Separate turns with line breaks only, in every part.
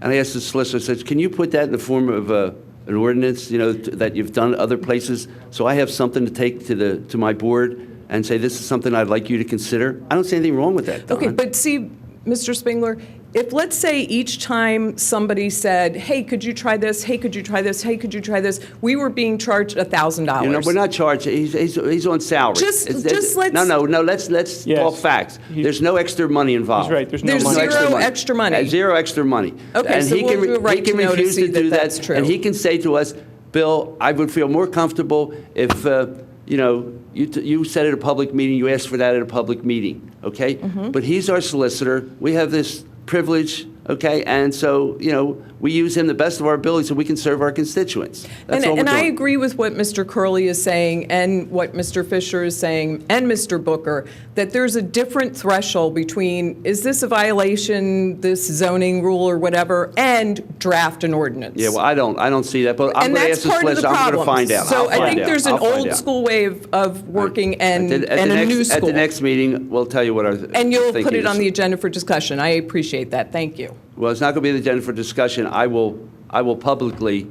And I asked the solicitor, I said, can you put that in the form of uh, an ordinance, you know, t- that you've done other places? So I have something to take to the, to my board and say, this is something I'd like you to consider? I don't see anything wrong with that,
Okay,
Don.
but see, Mr. Spengler, if, let's say, each time somebody said, hey, could you try this? Hey, could you try this? Hey, could you try this? We were being charged $1,000.
You know, we're not charging, he's, he's, he's on salary.
Just-
It's- it's-
just let's-
No, no, no, let's, let's
Yes.
talk facts.
He-
There's no extra money involved.
He's right, there's no
There's
money.
zero extra money.
Uh, Zero extra money.
Okay,
And
so
he
we'll
can re-
do a right
he can
to know to
refuse
see that
do
that's true.
And he can say to us, Bill, I would feel more comfortable if, uh, you know, you, t- you said at a public meeting, you asked for that at a public meeting, okay?
Mm-hmm.
But he's our solicitor. We have this privilege, okay? And so, you know, we use him the best of our ability so we can serve our constituents. That's all
and,
we're
and I
doing.
agree with what Mr. Curley is saying and what Mr. Fisher is saying and Mr. Booker that there's a different threshold between is this a violation, this zoning rule or whatever, and draft an ordinance.
Yeah, well, I don't, I don't see that, but I'm
and
going to ask
that's
the
part of
solicitor,
the
I'm going to
problem.
find out.
So
I'll
I
find
think
out.
there's an
I'll find
old
out.
school way of, of working and,
At the- at
and
the
a
next-
new school.
At the next meeting, we'll tell you what our
and you'll put
thinking
it on
is.
the agenda for discussion. I appreciate that. Thank you.
Well, it's not going to be on the agenda for discussion. I will, I will publicly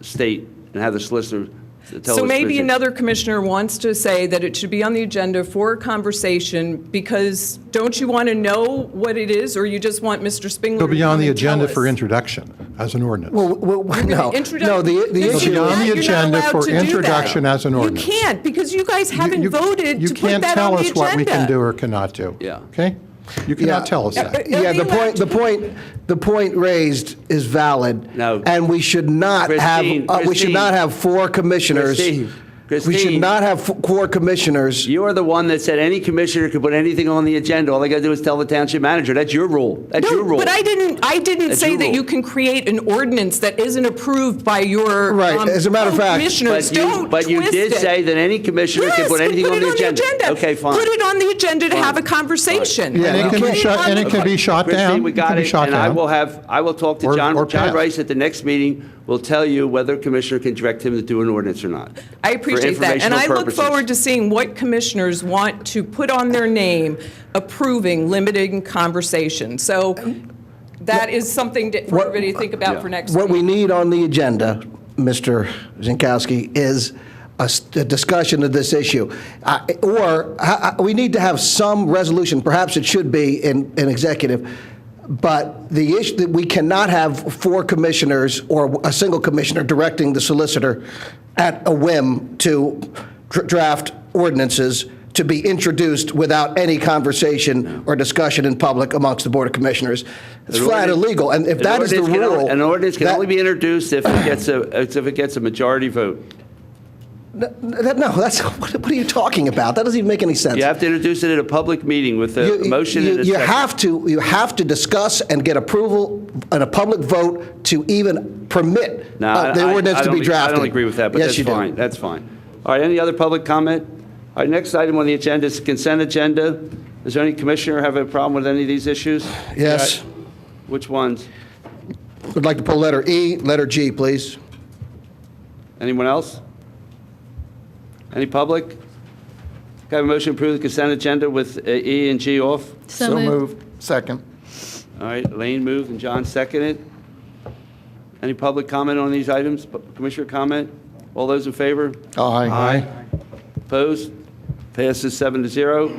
state and have the solicitor tell us.
So maybe
vision.
another commissioner wants to say that it should be on the agenda for a conversation because don't you want to know what it is or you just want Mr. Spingler
It'll
to
be on
come
the
and tell
agenda for
us?
introduction as an ordinance.
Well, well, well, no,
Introduc-
no, the,
No,
the
see,
issue.
It'll be on
that
the
you're not
agenda
allowed
for
to do that.
introduction as an ordinance.
You can't because you guys haven't
You- you-
voted to put that on the agenda.
You can't tell us what we can do or cannot do.
Yeah.
Okay? You cannot
Yeah.
tell us that.
Yeah, the
It'll be
point, the point, the point raised is valid.
No.
And we should not have,
Christine,
uh, we should not
Christine.
have four commissioners.
Christine,
We should
Christine.
not have fo- four commissioners.
You are the one that said any commissioner could put anything on the agenda. All they got to do is tell the township manager. That's your rule. That's your
No,
rule.
but I didn't, I didn't
That's
say
your
that
rule.
you can create an ordinance that isn't approved by your.
Right,
um,
as a matter of fact-
Commissioners,
But you,
don't
but you
twist
did
it.
say that any commissioner
Yes,
can put
but
anything
put
on
it
the agenda. Okay, fine.
Put it on the agenda to
Fine.
have a conversation.
Yeah, and it can
Put it
be shut,
on
and
the-
it can be shot down.
Christine, we
It can
got
be
it,
shot
and I
down.
will have, I will talk to
Or-
John,
or
John
passed.
Rice at the next meeting, will tell you whether Commissioner can direct him to do an ordinance or not.
I
for
appreciate that. And
informational
I look
purposes.
forward to seeing what commissioners want to put on their name approving limiting conversation. So that is something to- for
What-
everybody to think about for next
What
week.
we need on the agenda, Mr. Zinkowski, is a s- a discussion of this issue. I- Or, I- I- we need to have some resolution, perhaps it should be in, in executive, but the issue, that we cannot have four commissioners or a single commissioner directing the solicitor at a whim to dr- draft ordinances to be introduced without any conversation or discussion in public amongst the Board of Commissioners. It's
An
flat
ordinance-
illegal, and if
an
that is the
ordinance can only-
rule.
An ordinance can
that-
only be introduced if it gets a, if it gets a majority vote.
that- no, that's, what what are you talking about? That doesn't even make any sense.
You have to introduce it at a public meeting with a
You-
motion
you-
and a
You
second.
have to, you have to discuss and get approval and a public vote to even permit
No,
uh,
I-
the
I-
ordinance
I
to
don't
be
ag-
drafted.
I don't agree with that, but
Yes,
that's
you do.
fine. That's fine. All right, any other public comment? All right, next item on the agenda is consent agenda. Does any commissioner have a problem with any of these issues?
Yes.
Which ones?
Would like to pull letter E, letter G, please.
Anyone else? Any public? Can I have a motion to approve the consent agenda with uh, E and G off?
So moved. Second.
All right, Lane moved and John seconded. Any public comment on these items? Pu- Commissioner comment? All those in favor?
Aye.
Opposed? Passes seven to zero.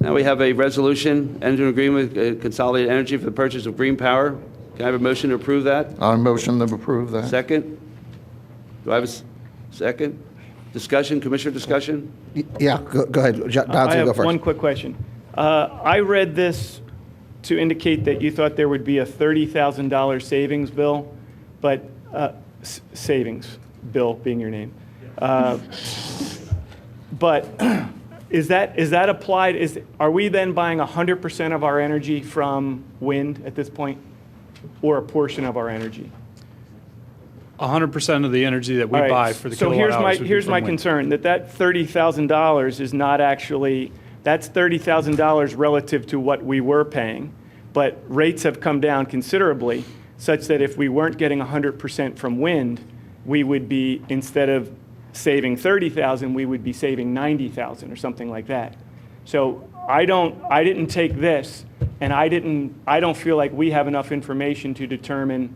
Now we have a resolution, enter an agreement with uh, Consolidated Energy for the purchase of green power. Can I have a motion to approve that?
I motion to approve that.
Second? Do I have a s- second? Discussion, Commissioner discussion?
Y- Yeah, go go ahead. Jo-
I
Jonathan, you go
have
first.
one quick question. Uh, I read this to indicate that you thought there would be a $30,000 savings bill, but, uh, s- savings, Bill being your name. Uh, But is that, is that applied, is, are we then buying 100% of our energy from wind at this point? Or a portion of our energy?
100% of the energy that we
All right,
buy for the
So
kilowatt
here's
hours
my,
would be
here's
from
my
wind.
concern, that that $30,000 is not actually, that's $30,000 relative to what we were paying, but rates have come down considerably, such that if we weren't getting 100% from wind, we would be, instead of saving 30,000, we would be saving 90,000 or something like that. So I don't, I didn't take this And I didn't, I don't feel like we have enough information to determine